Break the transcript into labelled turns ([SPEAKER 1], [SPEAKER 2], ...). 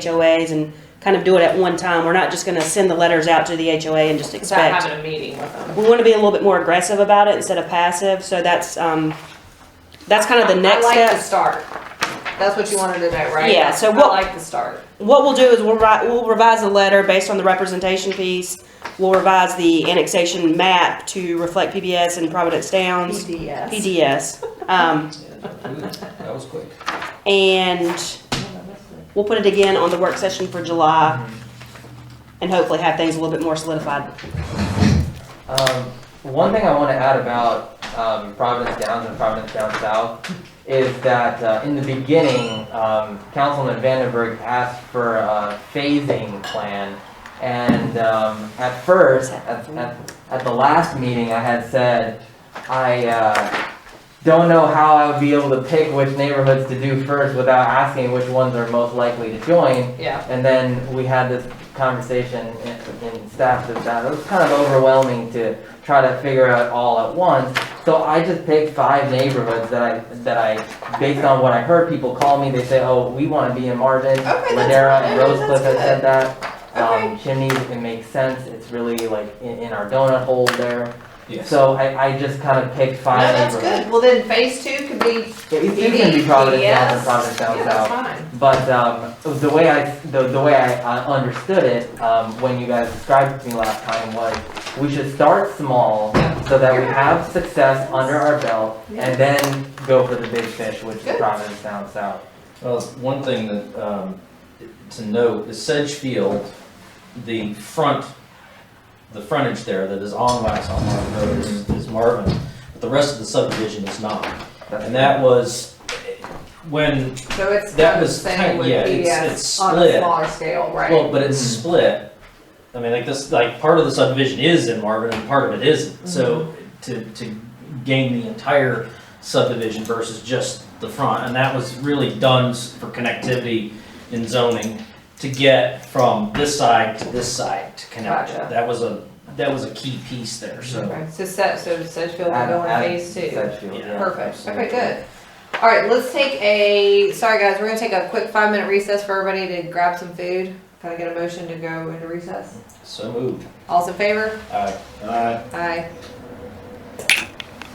[SPEAKER 1] HOAs and kind of do it at one time. We're not just gonna send the letters out to the HOA and just
[SPEAKER 2] Without
[SPEAKER 1] expect.
[SPEAKER 2] having a meeting with them.
[SPEAKER 1] We wanna be a little bit more aggressive about it instead of passive, so that's, um, that's kind of the next
[SPEAKER 2] I like the
[SPEAKER 1] step.
[SPEAKER 2] start. That's what you wanted to know, right?
[SPEAKER 1] Yeah, so
[SPEAKER 2] I
[SPEAKER 1] what-
[SPEAKER 2] like the start.
[SPEAKER 1] What we'll do is we'll write, we'll revise the letter based on the representation piece. We'll revise the annexation map to reflect PBS and Providence Downs.
[SPEAKER 2] PDS.
[SPEAKER 1] PDS. Um,
[SPEAKER 3] That was quick.
[SPEAKER 1] and we'll put it again on the work session for July and hopefully have things a little bit more solidified.
[SPEAKER 4] Um, one thing I want to add about um, Providence Downs and Providence Down South is that uh, in the beginning, um, Councilman Vandenberg asked for a phasing plan. And um, at first, at, at, at the last meeting, I had said, I uh, don't know how I would be able to pick which neighborhoods to do first without asking which ones are most likely to join.
[SPEAKER 2] Yeah.
[SPEAKER 4] And then we had this conversation in, in staff that that was kind of overwhelming to try to figure out all at once. So I just picked five neighborhoods that I, that I, based on what I heard people call me, they say, oh, we want to be in Marvin.
[SPEAKER 2] that's
[SPEAKER 4] Ladera and
[SPEAKER 2] good,
[SPEAKER 4] Rosecliff
[SPEAKER 2] that's
[SPEAKER 4] have said that.
[SPEAKER 2] Okay.
[SPEAKER 4] Um, Chimneys, it makes sense. It's really like in, in our donut hole there.
[SPEAKER 3] Yes.
[SPEAKER 4] So I, I just kind of picked
[SPEAKER 2] No,
[SPEAKER 4] five
[SPEAKER 2] that's
[SPEAKER 4] neighborhoods.
[SPEAKER 2] good. Well, then phase two could be,
[SPEAKER 4] It it can be Providence Down
[SPEAKER 2] Yes.
[SPEAKER 4] and Providence Down
[SPEAKER 2] yeah,
[SPEAKER 4] South.
[SPEAKER 2] that's fine.
[SPEAKER 4] But um, the way I the, the way I, I understood it um, when you guys described it to me last time was we should start small so that we have success under our belt and then go for the big fish, which
[SPEAKER 2] Good.
[SPEAKER 4] is Providence down south.
[SPEAKER 3] Well, Uh, one thing that, um, to note is Sedgefield, the front, the frontage there that is on Waxaw Marvin Road is- is Marvin, but the rest of the subdivision is not.
[SPEAKER 4] That's-
[SPEAKER 3] And that was, when,
[SPEAKER 2] So it's
[SPEAKER 3] That
[SPEAKER 2] kind of the
[SPEAKER 3] was kind
[SPEAKER 2] same
[SPEAKER 3] of-
[SPEAKER 2] with
[SPEAKER 3] yeah, it's- it's
[SPEAKER 2] PDS on a
[SPEAKER 3] split.
[SPEAKER 2] smaller scale,
[SPEAKER 3] well,
[SPEAKER 2] right?
[SPEAKER 3] but it's
[SPEAKER 4] Mhm.
[SPEAKER 3] split. I mean, like this, like, part of the subdivision is in Marvin and part of it isn't.
[SPEAKER 2] Mm-hmm.
[SPEAKER 3] So to, to gain the entire subdivision versus just the front, and that was really done s- for connectivity in zoning to get from this side to this side to connect.
[SPEAKER 2] Gotcha. Mm-hmm.
[SPEAKER 3] That was a, that was a key piece there, so.
[SPEAKER 2] Okay, So set, so Sedgefield will
[SPEAKER 4] Add-
[SPEAKER 2] go in
[SPEAKER 4] add
[SPEAKER 2] phase two.
[SPEAKER 4] Sedgefield,
[SPEAKER 3] Yeah.
[SPEAKER 4] yeah.
[SPEAKER 2] Perfect. Okay, good. All right, let's take a, sorry guys, we're gonna take a quick five minute recess for everybody to grab some food. Can I get a motion to go into recess?
[SPEAKER 3] So moved.
[SPEAKER 2] All's in favor?
[SPEAKER 3] Aye.
[SPEAKER 2] Aye.